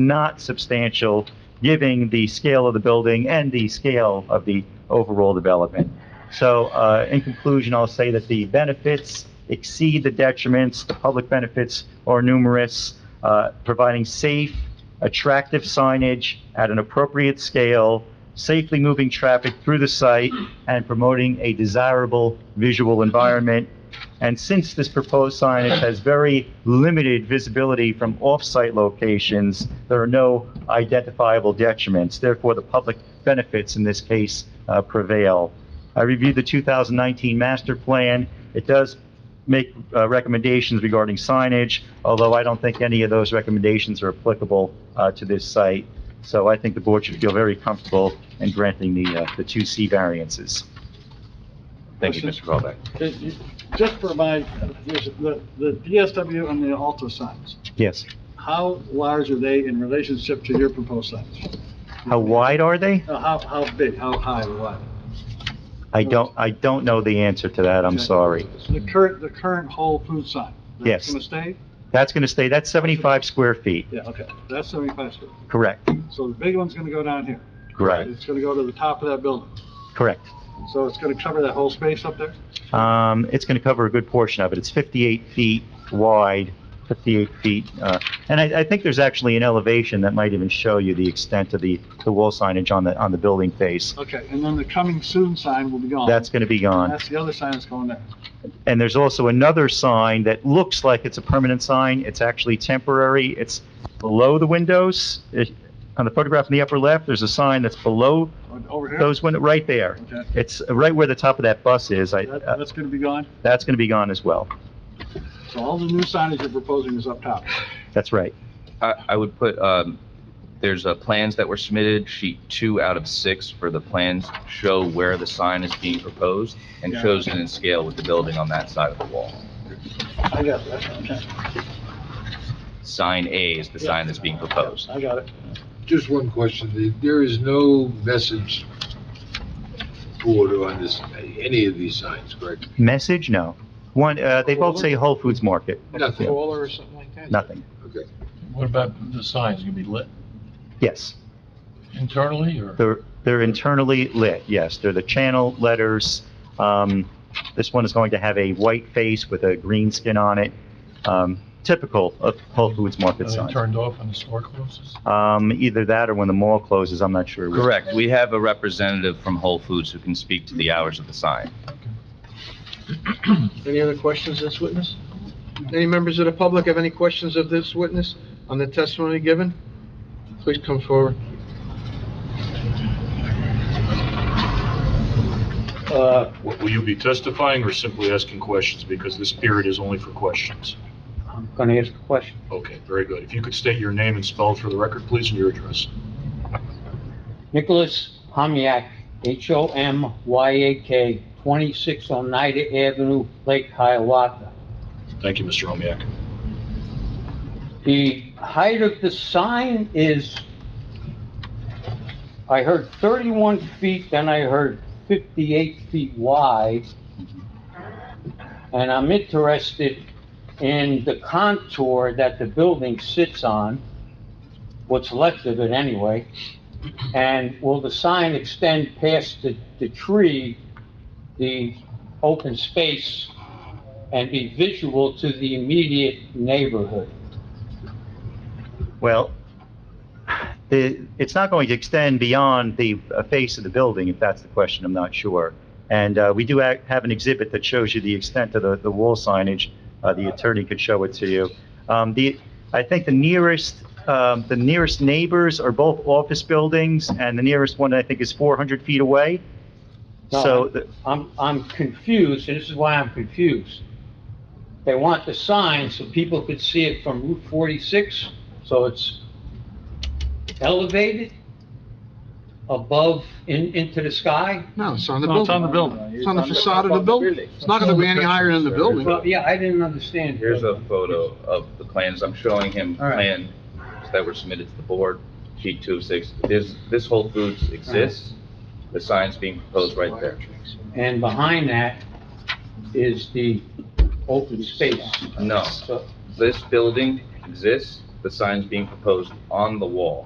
not substantial, giving the scale of the building and the scale of the overall development. So, uh, in conclusion, I'll say that the benefits exceed the detriments, the public benefits are numerous, uh, providing safe, attractive signage at an appropriate scale, safely moving traffic through the site, and promoting a desirable visual environment. And since this proposed signage has very limited visibility from off-site locations, there are no identifiable detriments. Therefore, the public benefits in this case uh, prevail. I reviewed the 2019 master plan. It does make uh, recommendations regarding signage, although I don't think any of those recommendations are applicable uh, to this site. So I think the board should feel very comfortable in granting the, uh, the 2C variances. Thank you, Mr. Questions? Colbeck. Okay, you- Just for my, the, the DSW and the alto signs, Yes. how large are they in relationship to your proposed signs? How wide are they? Uh, How, how big, how high, or what? I don't, I don't know the answer to that, I'm Okay. sorry. The current, the current Whole food sign? Yes. That's gonna stay? That's going to stay, that's 75 square feet, Yeah, okay, that's seventy-five square. correct? So the big one's gonna go down here. Correct, It's gonna go to the top of that building, correct. so it's gonna cover that whole space up there? Um, it's going to cover a good portion of it. It's 58 feet wide, 58 feet, uh, and I, I think there's actually an elevation that might even show you the extent of the, the wall signage on the, on the building face. Okay, and then the coming soon sign will be gone. That's going to be gone. That's the other sign that's going there. And there's also another sign that looks like it's a permanent sign. It's actually temporary. It's below the windows. It- On the photograph in the upper left, there's a sign that's below Oh, Over here? those windows, right there. Okay, It's right where the top of that bus is. I, that, uh, that's gonna be gone? that's going to be gone as well. So all the new signage you're proposing is up top. That's right. I, I would put, um, there's, uh, plans that were submitted, sheet two out of six for the plans show where the sign is being proposed and Yeah. shows it in scale with the building on that side of the wall. I got that, okay. Sign A is the sign that's being proposed. I got it. Just one question. The- There is no message board on this, any of these signs, correct? Message? No. One, uh, they both say Whole Foods Market. Nothing, Crawler or something like that? Nothing. okay. What about the signs, gonna be lit Yes. internally, or They're, they're internally lit, yes. They're the channel letters. Um, this one is going to have a white face with a green skin on it. Um, typical of Whole Foods Market are they signs. uh, turned off when the store closes? Um, either that or when the mall closes, I'm not sure. which. Correct. We have a representative from Whole Foods who can speak to the hours of the sign. Any other questions of this witness? Any members of the public have any questions of this witness on the testimony given? Please come forward. Uh, Will you be testifying or simply asking questions, because this period is only for questions? I'm going to ask a question. Okay, very good. If you could state your name and spell it for the record, please, and your address. Nicholas Homyak, H-O-M-Y-A-K, 26 Oneida oh Avenue, Lake Hiawatha. Thank you, Mr. Omiak. The height of the sign is, I heard 31 feet, then I heard 58 feet wide. And I'm interested in the contour that the building sits on, what's left of it anyway. And will the sign extend past the, the tree, the open space, and be visual to the immediate neighborhood? Well, the, it's not going to extend beyond the uh, face of the building, if that's the question, I'm not sure. And uh, we do ha- have an exhibit that shows you the extent of the, the wall signage. Uh, The attorney could show it to you. Um, The, I think the nearest, um, the nearest neighbors are both office buildings, and the nearest one, I think, is 400 feet away. No, So, I'm- the- I'm, I'm confused, and this is why I'm confused. They want the sign so people could see it from Route 46, so it's elevated above, in, into the sky? No, it's on the No, building. it's on the building. It's on the facade of the building. It's not gonna be any higher than the building. Well, yeah, I didn't understand. Here's a photo of the plans. I'm showing him All right. plans that were submitted to the board, sheet two of six. This, this Whole Foods exists. The sign's being proposed right there. And behind that is the open space. No. So, This building exists, the signs being proposed on the wall.